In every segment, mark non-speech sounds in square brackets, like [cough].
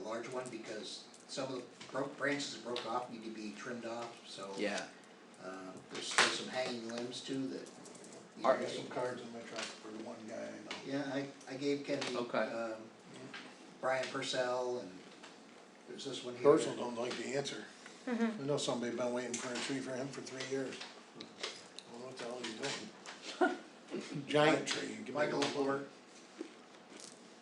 large one because some of the broke branches that broke off need to be trimmed off, so. Yeah, Uh, there's still some hanging limbs too that. you Are- I know, got some cards in my truck for the one guy I know. Yeah, I, I gave Kenny, Okay. um, Brian Purcell and there's this one here. Personal don't like the answer. I know somebody been waiting for a tree for him for three years. I don't know what the hell he's doing. Giant tree. give me Michael one. Lefleur,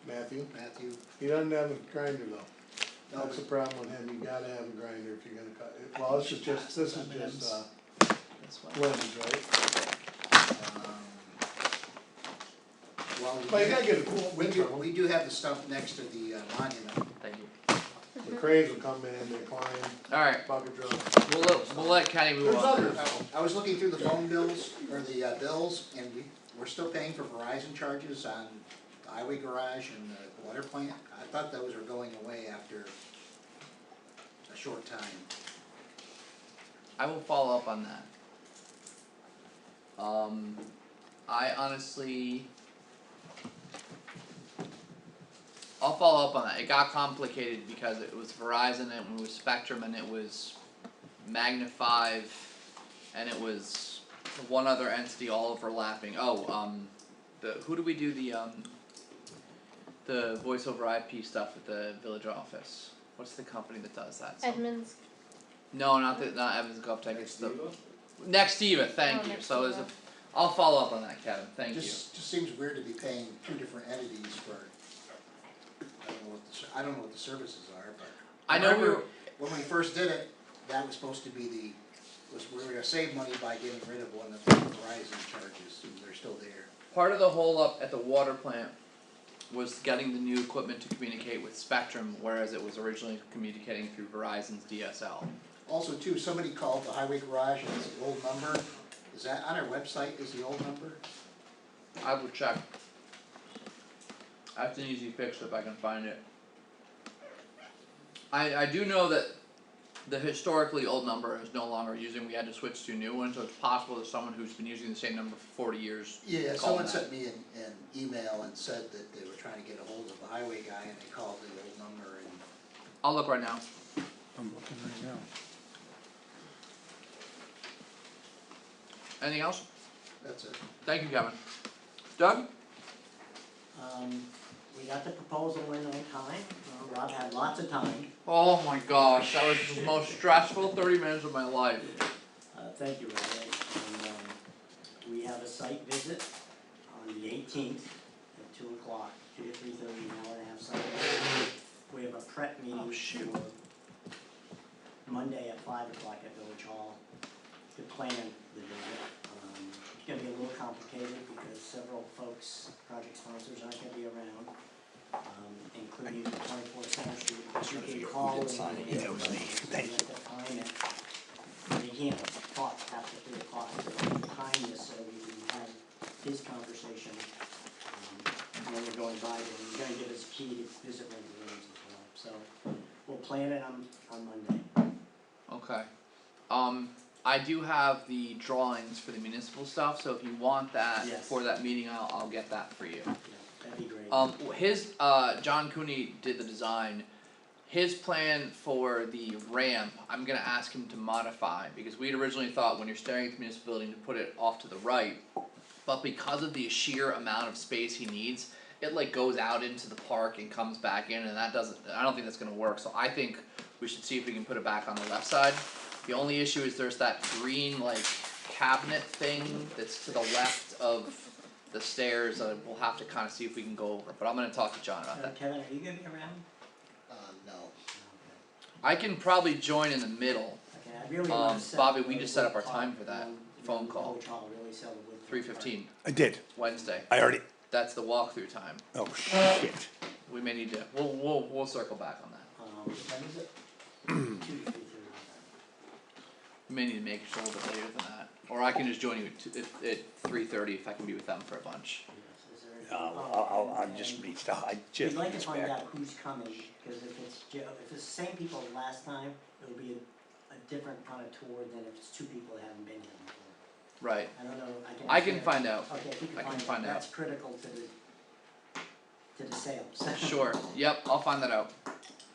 Matthew, Matthew, he doesn't have a grinder though. no, That's the problem with him, you gotta have a grinder if you're gonna cut it. Well, this is just, this is just, uh, that's limbs, right? um. Well, we Well, you do- gotta get a cool we wind do, tunnel. we do have the stump next to the uh, monument. Thank you. The cranes will come in, they climb, Alright, bucket drop. we'll let, we'll let Kenny move There's on. others. I was looking through the phone bills, or the uh, bills, and we, we're still paying for Verizon charges on the highway garage and the water plant. I thought those were going away after a short time. I will follow up on that. Um, I honestly. I'll follow up on that, it got complicated because it was Verizon and it was Spectrum and it was Magna five. And it was one other entity all overlapping, oh, um, the, who do we do the, um. The voice over IP stuff at the village office, what's the company that does that? So- Edmonds. no, not the not Evans Golf Tech. It's the next Eva. Thank Oh, you. next So there's a. Eva. I'll follow up on that, Kevin. Thank Just, just seems weird to be paying two different entities for, I don't know what the, ser- I don't know what the services are, but. you. I know we were. remember When we first did it, that was supposed to be the, was, we were gonna save money by getting rid of one of the Verizon charges, and they're still there. Part of the hole up at the water plant was getting the new equipment to communicate with Spectrum, whereas it was originally communicating through Verizon's DSL. Also too, somebody called the highway garage and it's the old number, is that on our website, is the old number? I will check. That's an easy fix if I can find it. I I do know that the historically old number is no longer using. We had to switch to a new one, so it's possible that someone who's been using the same number for forty years Yeah, Call someone that. sent me an, an email and said that they were trying to get a hold of the highway guy and they called the old number and I'll look right now. I'm looking right now. Anything else? that's it. Thank you, Kevin. Doug? Um, we got the proposal in on time, Uh, Rob had lots of time, Oh my gosh, that was the most stressful thirty minutes of my life. uh, thank you, Rob, and, um, we have a site visit on the eighteenth at two o'clock, two to three thirty, an hour and a half site visit. We have a prep meeting Oh, shoot. for Monday at five o'clock at Village Hall to plan the visit. Um, it's gonna be a little complicated because several folks, project sponsors aren't gonna be around, um, including the twenty-four Center Street, which you can call and. Yeah, it was me, thank you. have to time it. We can't talk after three o'clock, so we have to time this so we can have his conversation. um, When we're going by, and he's gonna give us a key to visit one of the rooms as well, so we'll plan it on, on Monday. Okay. Um, I do have the drawings for the municipal stuff, so if you want that Yes. for that meeting, I'll I'll get that for you. Yeah, that'd be great. Um, his, uh, John Cooney did the design. His plan for the ramp, I'm gonna ask him to modify, because we had originally thought when you're staring at the municipal building to put it off to the right. But because of the sheer amount of space he needs, it like goes out into the park and comes back in, and that doesn't, I don't think that's gonna work, so I think we should see if we can put it back on the left side. The only issue is there's that green like cabinet thing that's to the left of the stairs, uh, we'll have to kinda see if we can go over, but I'm gonna talk to John about Uh, that. Kevin, are you gonna be around? Uh, no, I can probably join in the middle, Okay, I really Um, wanna set. Bobby, up we a just set up wood our time clock, for that um, you phone know, call. Village Hall really sell the wood clock. three fifteen, I did. Wednesday, I already, that's the walkthrough time, oh shit. we may need to, we'll, we'll, we'll circle back on that. Um, when is it? [clears throat] Two to three thirty. We may need to make it a little bit later than that, or I can just join you at, two- at, at three thirty if I can be with them for a bunch. Yes, is there? Uh, I'll, I'll, I'm just reached out, I We'd just Oh. like to reached find back. out who's coming, cause if it's, Joe- if it's the same people last time, it'll be a, a different kind of tour than if it's two people that haven't been here before. Right, I don't know, I can. I can find out, Okay, if you I can can find find out, out. that's critical to the, to the sales. [laughs] sure, yep, I'll find that out.